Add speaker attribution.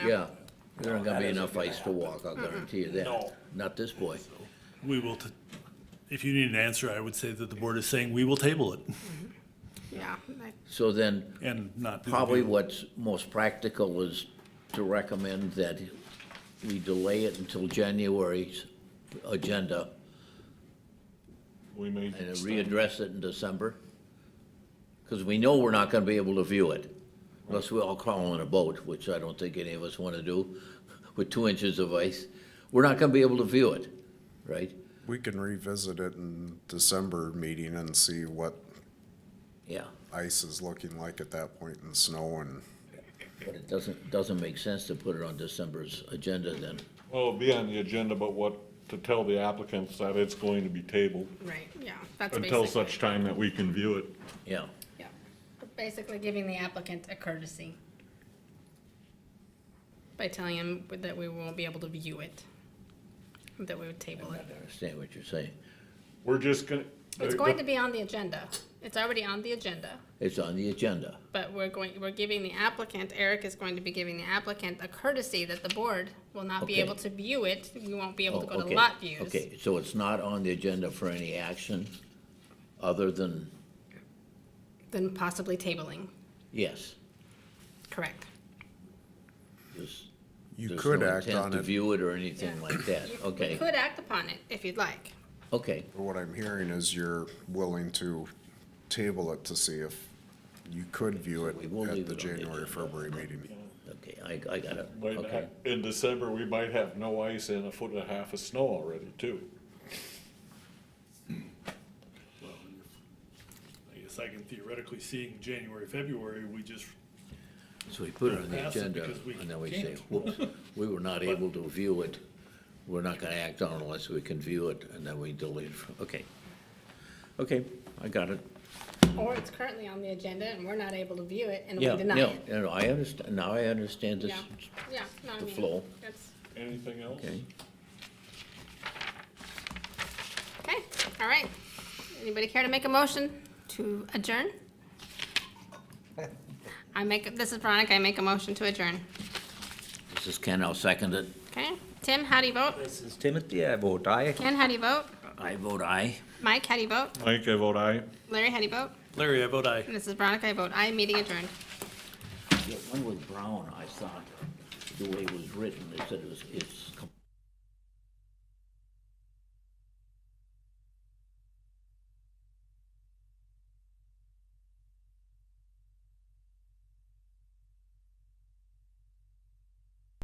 Speaker 1: Yeah, there aren't gonna be enough ice to walk, I'll guarantee you that.
Speaker 2: No.
Speaker 1: Not this boy.
Speaker 2: We will, t- if you need an answer, I would say that the board is saying, we will table it
Speaker 3: Yeah, I-
Speaker 1: So then,
Speaker 2: and not. do the
Speaker 1: probably
Speaker 2: vote.
Speaker 1: what's most practical is to recommend that we delay it until January's agenda
Speaker 4: We may.
Speaker 1: and readdress it in December. Because we know we're not gonna be able to view it, unless we all crawl in a boat, which I don't think any of us wanna do, with two inches of ice. We're not gonna be able to view it, right?
Speaker 5: We can revisit it in December meeting and see what
Speaker 1: Yeah.
Speaker 5: ice is looking like at that point and snow and
Speaker 1: But it doesn't, doesn't make sense to put it on December's agenda then.
Speaker 4: Well, it'll be on the agenda, but what, to tell the applicants that it's going to be tabled
Speaker 3: right, yeah, that's basically.
Speaker 4: until such time that we can view it.
Speaker 1: Yeah.
Speaker 3: Yeah,
Speaker 6: Basically giving the applicant a courtesy.
Speaker 3: by telling him that we won't be able to view it, that we would table
Speaker 1: I
Speaker 3: it.
Speaker 1: understand what you're saying.
Speaker 4: We're just gonna.
Speaker 3: It's going to be on the agenda. It's already on the agenda,
Speaker 1: It's on the agenda.
Speaker 3: but we're going, we're giving the applicant, Eric is going to be giving the applicant a courtesy that the board will not be
Speaker 1: Okay.
Speaker 3: able to view it. We won't be able to
Speaker 1: Oh,
Speaker 3: go to
Speaker 1: okay.
Speaker 3: lot views.
Speaker 1: Okay, so it's not on the agenda for any action other than,
Speaker 3: Then possibly tabling,
Speaker 1: yes,
Speaker 3: correct.
Speaker 1: there's,
Speaker 5: you
Speaker 1: there's
Speaker 5: could
Speaker 1: no
Speaker 5: act
Speaker 1: intent
Speaker 5: on
Speaker 1: to
Speaker 5: it.
Speaker 1: view it or anything
Speaker 3: Yeah.
Speaker 1: like that.
Speaker 3: You
Speaker 1: Okay,
Speaker 3: could act upon it if you'd like.
Speaker 1: okay,
Speaker 5: What I'm hearing is you're willing to table it to see if you could view it
Speaker 1: we will leave it on
Speaker 5: at the
Speaker 1: the
Speaker 5: January,
Speaker 1: agenda.
Speaker 5: February meeting.
Speaker 1: okay, I, I got it,
Speaker 4: Might
Speaker 1: okay.
Speaker 4: not- uh, In December, we might have no ice and a foot and a half of snow already too.
Speaker 2: I guess I can theoretically seeing January, February, we just,
Speaker 1: So we put it on the
Speaker 2: Pass it
Speaker 1: agenda
Speaker 2: because we
Speaker 1: and then we say,
Speaker 2: can't.
Speaker 1: whoops, we were not able to view it. We're not gonna act on it unless we can view it and then we delete it from, okay. Okay, I got it.
Speaker 3: Or it's currently on the agenda and we're not able to view it and we
Speaker 1: Yeah,
Speaker 3: deny
Speaker 1: no,
Speaker 3: it.
Speaker 1: no, I understand, now I understand this,
Speaker 3: Yeah, yeah, no, I
Speaker 1: the
Speaker 3: mean,
Speaker 1: flow.
Speaker 3: that's-
Speaker 4: Anything else?
Speaker 1: okay?
Speaker 3: Okay, all right. Anybody care to make a motion to adjourn? I make, this is Veronica, I make a motion to adjourn.
Speaker 1: This is Ken, I'll second it.
Speaker 3: Okay, Tim, how do you vote?
Speaker 7: This is Timothy, I vote aye.
Speaker 3: Ken, how do you vote?
Speaker 1: I vote aye.
Speaker 3: Mike, how do you vote?
Speaker 4: Mike, I vote aye.
Speaker 3: Larry, how do you vote?
Speaker 2: Larry, I vote aye.
Speaker 3: And this is Veronica, I vote aye, meeting adjourned.
Speaker 1: The one with Brown, I thought, the way it was written, it said it was, it's. com-